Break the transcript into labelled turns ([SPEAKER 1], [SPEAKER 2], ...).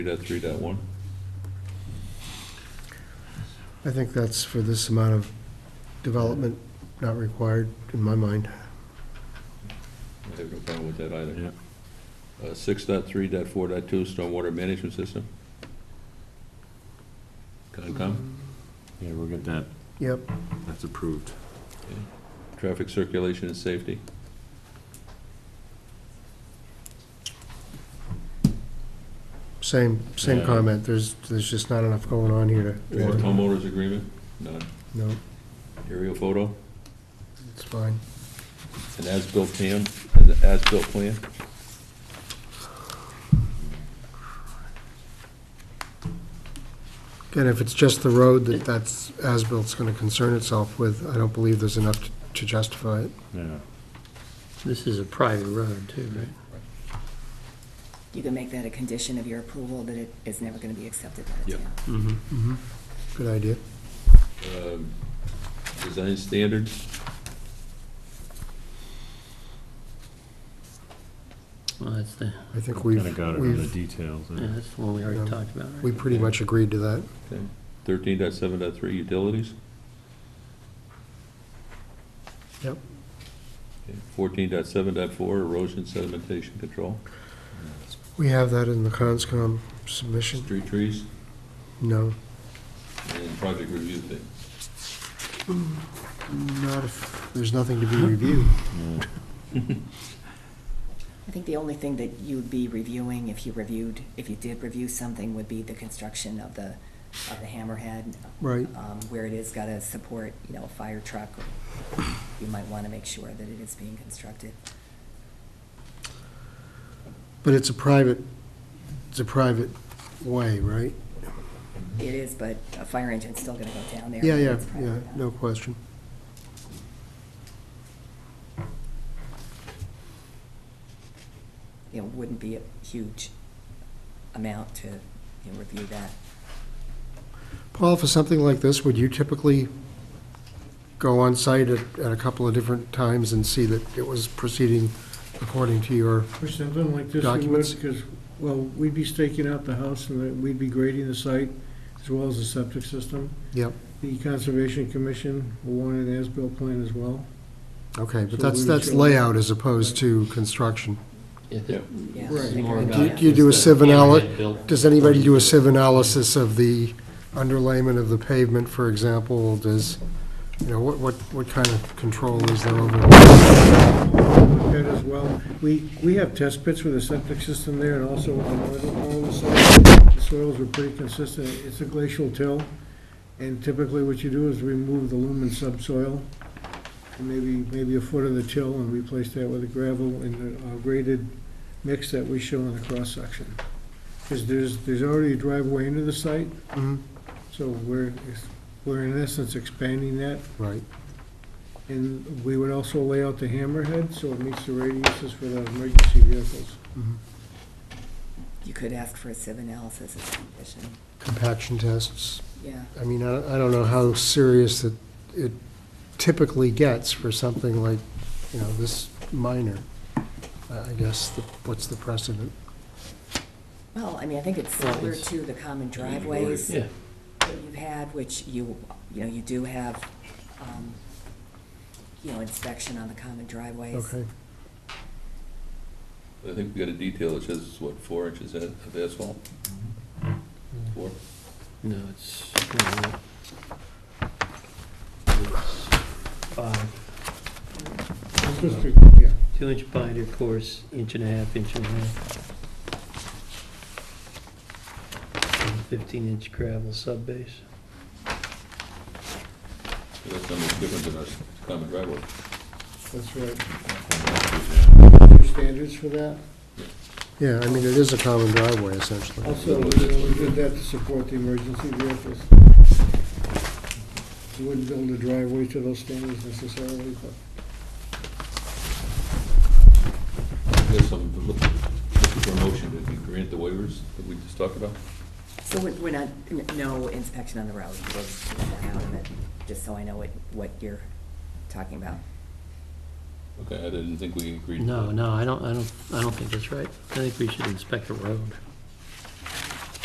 [SPEAKER 1] 3.3.1?
[SPEAKER 2] I think that's for this amount of development not required, in my mind.
[SPEAKER 1] I have no problem with that either. Uh, 6.3.4.2, stormwater management system? Concom?
[SPEAKER 3] Yeah, we'll get that,
[SPEAKER 2] Yep,
[SPEAKER 3] that's approved.
[SPEAKER 1] Traffic circulation and safety?
[SPEAKER 2] same, same
[SPEAKER 3] Yeah.
[SPEAKER 2] comment, there's, there's just not enough going on here to,
[SPEAKER 1] Homeowners agreement? None.
[SPEAKER 2] no,
[SPEAKER 1] Aerial photo?
[SPEAKER 2] it's fine.
[SPEAKER 1] An as-built plan? An as-built plan?
[SPEAKER 2] Again, if it's just the road that that's, as-bilt's gonna concern itself with, I don't believe there's enough to- to justify it.
[SPEAKER 3] Yeah.
[SPEAKER 4] This is a private road too, right?
[SPEAKER 5] You can make that a condition of your approval, that it is never going to be accepted by the
[SPEAKER 1] Yep.
[SPEAKER 5] town.
[SPEAKER 2] Mm-hmm. Good idea.
[SPEAKER 1] Um, Design standards?
[SPEAKER 4] Well, that's the,
[SPEAKER 2] I think
[SPEAKER 3] Kind of
[SPEAKER 2] we've,
[SPEAKER 3] got it on the
[SPEAKER 2] we've,
[SPEAKER 3] details.
[SPEAKER 4] yeah,
[SPEAKER 3] uh,
[SPEAKER 4] that's the one we already
[SPEAKER 2] Yeah.
[SPEAKER 4] talked about, right?
[SPEAKER 2] we pretty much agreed to that.
[SPEAKER 1] Okay. 13.7.3 utilities?
[SPEAKER 2] Yep.
[SPEAKER 1] Okay. 14.7.4 erosion sedimentation control?
[SPEAKER 2] We have that in the conscom submission,
[SPEAKER 1] Street trees?
[SPEAKER 2] no.
[SPEAKER 1] and project review thing.
[SPEAKER 2] Not if, there's nothing to be reviewed.
[SPEAKER 5] I think the only thing that you'd be reviewing, if you reviewed, if you did review something, would be the construction of the, of the hammerhead.
[SPEAKER 2] Right.
[SPEAKER 5] um, Where it is got to support, you know, a fire truck. You might want to make sure that it is being constructed.
[SPEAKER 2] But it's a private, it's a private way, right?
[SPEAKER 5] It is, but a fire engine's still going to go down there.
[SPEAKER 2] Yeah, yeah,
[SPEAKER 5] It's private
[SPEAKER 2] yeah,
[SPEAKER 5] now.
[SPEAKER 2] no question.
[SPEAKER 5] You know, wouldn't be a huge amount to, you know, review that.
[SPEAKER 2] Paul, for something like this, would you typically go on site at, at a couple of different times and see that it was proceeding according to your,
[SPEAKER 6] For something like this, we
[SPEAKER 2] Documents.
[SPEAKER 6] would, because, well, we'd be staking out the house, and then we'd be grading the site, as well as the septic system.
[SPEAKER 2] yep,
[SPEAKER 6] The Conservation Commission will want an as-built plan as well.
[SPEAKER 2] okay, but
[SPEAKER 6] So
[SPEAKER 2] that's,
[SPEAKER 6] we
[SPEAKER 2] that's
[SPEAKER 6] should-
[SPEAKER 2] layout as opposed to construction.
[SPEAKER 5] Yeah.
[SPEAKER 6] Right.
[SPEAKER 5] I think
[SPEAKER 4] More
[SPEAKER 5] it would
[SPEAKER 2] Do
[SPEAKER 5] be
[SPEAKER 2] you-
[SPEAKER 4] about-
[SPEAKER 2] do you do a
[SPEAKER 4] Is the
[SPEAKER 2] sieve analysis?
[SPEAKER 4] hammerhead built?
[SPEAKER 2] Does anybody do a sieve analysis of the underlayment of the pavement, for example? Does, you know, what, what, what kind of control is there over?
[SPEAKER 6] That as well. We, we have test pits with a septic system there, and also with the northern part of the site. The soils were pretty consistent. It's a glacial till, and typically what you do is remove the lumen subsoil, and maybe, maybe a foot of the till, and replace that with a gravel and a graded mix that we show in the cross-section. Because there's, there's already a driveway into the site,
[SPEAKER 2] Mhm,
[SPEAKER 6] so we're, we're in essence expanding that
[SPEAKER 2] Right,
[SPEAKER 6] and we would also lay out the hammerhead, so it meets the radiuses for the emergency vehicles.
[SPEAKER 2] mhm.
[SPEAKER 5] You could ask for a sieve analysis as a condition,
[SPEAKER 2] compaction tests.
[SPEAKER 5] yeah.
[SPEAKER 2] I mean, I I don't know how serious it it typically gets for something like, you know, this minor. I I guess, the- what's the precedent?
[SPEAKER 5] Well, I mean, I think it's
[SPEAKER 4] Well,
[SPEAKER 5] similar
[SPEAKER 4] it's-
[SPEAKER 5] to the common driveways that
[SPEAKER 4] Yeah,
[SPEAKER 5] you've had, which you, you know, you do have, um, you know, inspection on the common driveways.
[SPEAKER 2] Okay,
[SPEAKER 1] I think we got a detail that says, what, four inches a- of asphalt? Four?
[SPEAKER 4] no, it's. no, it's five.
[SPEAKER 6] Yeah.
[SPEAKER 4] Two inch binder course, inch and a half, inch and a half. And Fifteen inch gravel sub base.
[SPEAKER 1] So That's not much different than our common driveway.
[SPEAKER 6] That's right. Standards for that?
[SPEAKER 2] yeah, I mean, it is a common driveway essentially.
[SPEAKER 6] Also, you know, we did that to support the emergency vehicles. You Wouldn't build a driveway to those standards necessarily, but
[SPEAKER 1] There's some, looking for a motion, did we grant the waivers that we just talked about?
[SPEAKER 5] So we're, we're not, n- no inspection on the road, we're keeping that out of it, just so I know what, what you're talking about.
[SPEAKER 1] Okay, I didn't think we agreed. to
[SPEAKER 4] No,
[SPEAKER 1] that.
[SPEAKER 4] no, I don't, I don't, I don't think that's right. I think we should inspect the road.